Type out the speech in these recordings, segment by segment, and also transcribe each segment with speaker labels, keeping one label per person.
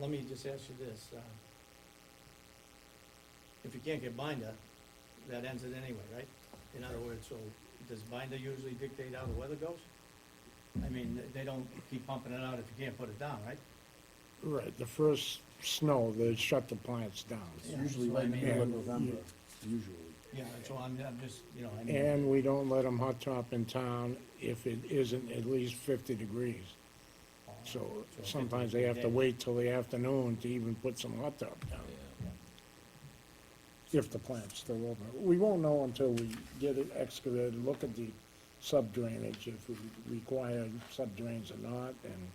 Speaker 1: let me just ask you this, uh, if you can't get binder, that ends it anyway, right? In other words, so does binder usually dictate how the weather goes? I mean, they- they don't keep pumping it out if you can't put it down, right?
Speaker 2: Right, the first snow, they shut the plants down.
Speaker 1: Yeah,
Speaker 3: Usually
Speaker 1: so I
Speaker 3: right in the
Speaker 1: mean-
Speaker 3: middle of November, usually.
Speaker 1: Yeah, so I'm, I'm just, you know, I mean,
Speaker 2: And we don't let them hot top in town if it isn't at least fifty degrees. So sometimes they have to wait till the afternoon to even put some hot top down, if the plant's still open. We won't know until we get it excavated, look at the sub drainage, if we require sub drains or not, and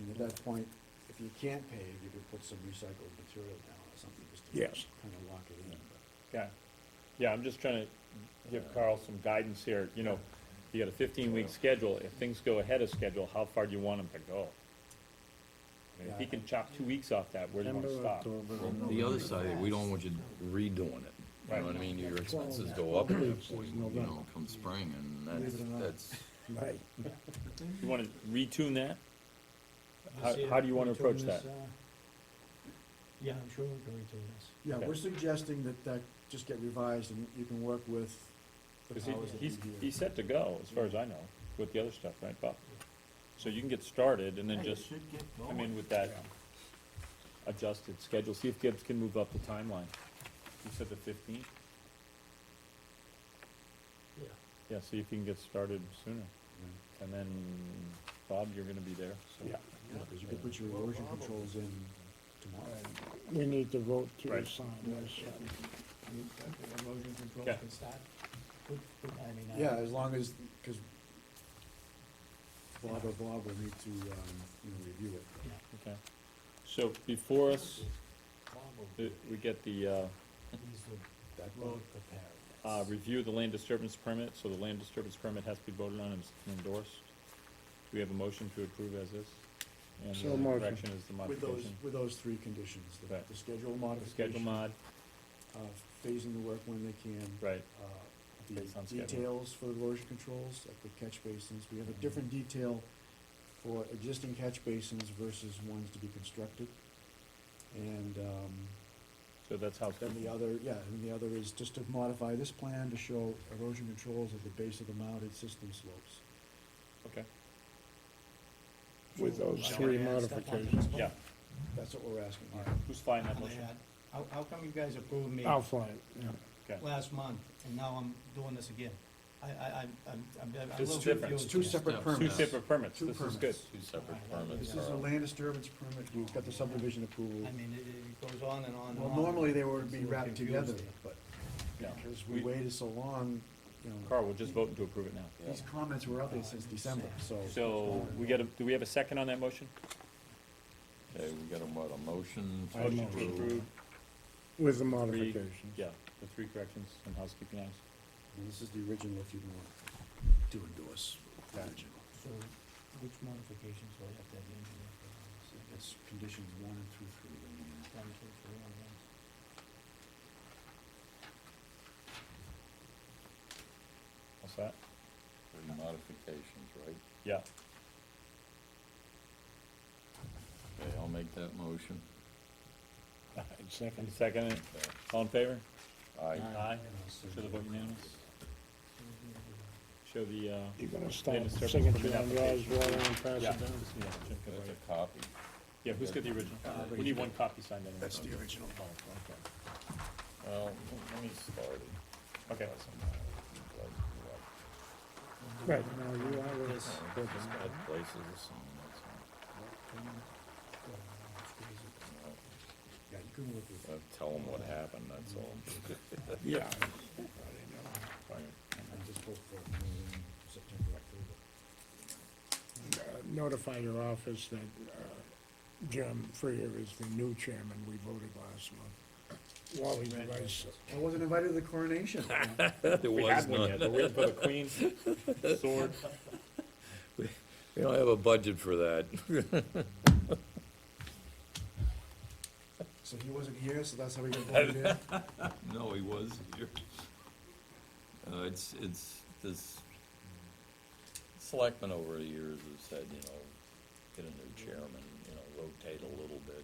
Speaker 3: And at that point, if you can't pave, you could put some recycled material down or something, just to
Speaker 2: Yes.
Speaker 3: kind of lock it in. but-
Speaker 4: Yeah, yeah, I'm just trying to give Carl some guidance here, you know, you got a fifteen-week schedule, if things go ahead of schedule, how far do you want them to go? I mean, if he can chop two weeks off that, where do you want to
Speaker 2: September,
Speaker 4: stop?
Speaker 2: October,
Speaker 5: The other side, we don't want you redoing it, you know what I mean, your expenses go up at that point, you know, come spring, and that's, that's,
Speaker 2: Right.
Speaker 4: You want to retune that?
Speaker 1: this
Speaker 4: how-
Speaker 1: year,
Speaker 4: how do you wanna
Speaker 1: we tune
Speaker 4: approach
Speaker 1: this,
Speaker 4: that?
Speaker 1: uh, Yeah, I'm sure we can redo this.
Speaker 3: Yeah,
Speaker 4: Okay.
Speaker 3: we're suggesting that that just get revised and you can work with the
Speaker 4: Because he,
Speaker 3: powers that be
Speaker 4: he's,
Speaker 3: here.
Speaker 4: he's set to go, as far as I know, with the other stuff, right, Bob? So you can get started and then just come in with that adjusted schedule, see if Gibbs can move up the timeline. You said the fifteenth?
Speaker 1: Yeah.
Speaker 4: Yeah, see if you can get started sooner. And then, Bob, you're gonna be there, so.
Speaker 2: Yeah.
Speaker 3: Because you could put your erosion controls in tomorrow.
Speaker 2: We need to vote to
Speaker 4: Right.
Speaker 2: assign this. uh,
Speaker 1: The Erosion control
Speaker 4: Yeah.
Speaker 1: can start. Good- good, I mean, uh,
Speaker 3: Yeah, as long as, because Bob or Bob will need to, um, you know, review it.
Speaker 1: yeah.
Speaker 4: Okay. So before us, uh, we get the, uh,
Speaker 3: That
Speaker 1: Road
Speaker 4: uh, review the land disturbance permit, so the land disturbance permit has to be voted on and endorsed. Do we have a motion to approve as is? And
Speaker 2: So
Speaker 4: the only
Speaker 2: motion.
Speaker 4: correction is the
Speaker 3: With those,
Speaker 4: modification.
Speaker 3: with those three conditions, the,
Speaker 4: Right.
Speaker 3: the schedule
Speaker 4: The Schedule
Speaker 3: modification, uh,
Speaker 4: mod,
Speaker 3: phasing the work when they can.
Speaker 4: right,
Speaker 3: uh,
Speaker 4: Based on
Speaker 3: the
Speaker 4: schedule. Mm-hmm.
Speaker 3: details for erosion controls at the catch basins. We have a different detail for existing catch basins versus ones to be constructed. And, um,
Speaker 4: so that's how.
Speaker 3: then the other, yeah, and the other is just to modify this plan to show erosion controls at the base of the mounted system slopes.
Speaker 4: Okay,
Speaker 2: With those
Speaker 1: Sure.
Speaker 2: three
Speaker 1: Yeah, stuff like that.
Speaker 2: modifications.
Speaker 4: yeah,
Speaker 3: That's what we're asking
Speaker 4: all
Speaker 3: here.
Speaker 4: right, who's flying that
Speaker 1: How they
Speaker 4: motion?
Speaker 1: had- How, how come you guys approved me
Speaker 3: Oh.
Speaker 2: I'll fly it, yeah.
Speaker 4: Okay,
Speaker 1: last month, and now I'm doing this again? I, I, I'm- I'm, I'm, I'm a
Speaker 4: This is
Speaker 1: little
Speaker 4: different.
Speaker 1: confused.
Speaker 3: It's two
Speaker 1: here.
Speaker 3: separate
Speaker 5: Two
Speaker 4: two
Speaker 3: permits.
Speaker 4: separate permits,
Speaker 3: Two
Speaker 4: this is good.
Speaker 5: two separate permits
Speaker 3: This is a
Speaker 5: are,
Speaker 3: land disturbance permit, we've got the subdivision approval.
Speaker 1: I mean, it, it goes on and on and on.
Speaker 3: Well, normally they would
Speaker 1: It's a
Speaker 3: be
Speaker 1: little
Speaker 3: wrapped
Speaker 1: confused
Speaker 3: together,
Speaker 1: here.
Speaker 3: but
Speaker 4: Yeah.
Speaker 3: because we waited so long, you know.
Speaker 4: Carl, we're just voting to approve it now.
Speaker 3: These comments were out there since December, so.
Speaker 4: So, we got a, do we have a second on that motion?
Speaker 5: okay, we got a, what, a motion to
Speaker 4: Motion to
Speaker 5: approve?
Speaker 4: approve,
Speaker 2: With the
Speaker 4: three,
Speaker 2: modifications.
Speaker 4: yeah, the three corrections and housekeeping items.
Speaker 3: And This is the original, if you want to endorse the original.
Speaker 1: So which modifications will I have to have the engineer put on this?
Speaker 3: It's conditions one and through three. right
Speaker 1: One, two, three, on one.
Speaker 4: What's that?
Speaker 5: Three modifications, right?
Speaker 4: Yeah,
Speaker 5: Okay, I'll make that motion.
Speaker 4: Any
Speaker 2: Second.
Speaker 4: second, it?
Speaker 5: Okay.
Speaker 4: all in favor?
Speaker 3: now.
Speaker 5: Aye.
Speaker 4: Aye.
Speaker 3: And I'll send
Speaker 4: Show the
Speaker 3: you-
Speaker 4: vote unanimous. Show the, uh,
Speaker 2: You're gonna start
Speaker 4: Then it's
Speaker 2: signature
Speaker 4: separate
Speaker 2: on yours, roll and pass it
Speaker 4: yeah,
Speaker 2: down.
Speaker 4: just, yeah, Jim can
Speaker 5: That's
Speaker 4: write it.
Speaker 5: a copy.
Speaker 4: Yeah, who's got the original? We need one copy signed Oh, anyway.
Speaker 3: That's the original.
Speaker 5: Well, let me start it.
Speaker 4: Okay.
Speaker 5: Doesn't matter. Like,
Speaker 2: Right, now you are with
Speaker 1: This.
Speaker 5: like, just add places or something, that's all.
Speaker 3: Yeah, you can look with,
Speaker 5: Uh, Tell them what happened, that's all.
Speaker 2: Yeah,
Speaker 3: I just hope for um, September, October.
Speaker 2: uh, notify your office that uh, Jim Freer is the new chairman, we voted last month. Wally Rice,
Speaker 3: I wasn't invited to the coronation.
Speaker 5: There
Speaker 4: We
Speaker 5: was
Speaker 4: had one
Speaker 5: none.
Speaker 4: yet, we're waiting for the queen, sword.
Speaker 5: We don't have a budget for that.
Speaker 3: So he wasn't here, so that's how we got voted in?
Speaker 5: No, he was here. Uh, it's, it's, this selectmen over the years have said, you know, get a new chairman, you know, rotate a little bit,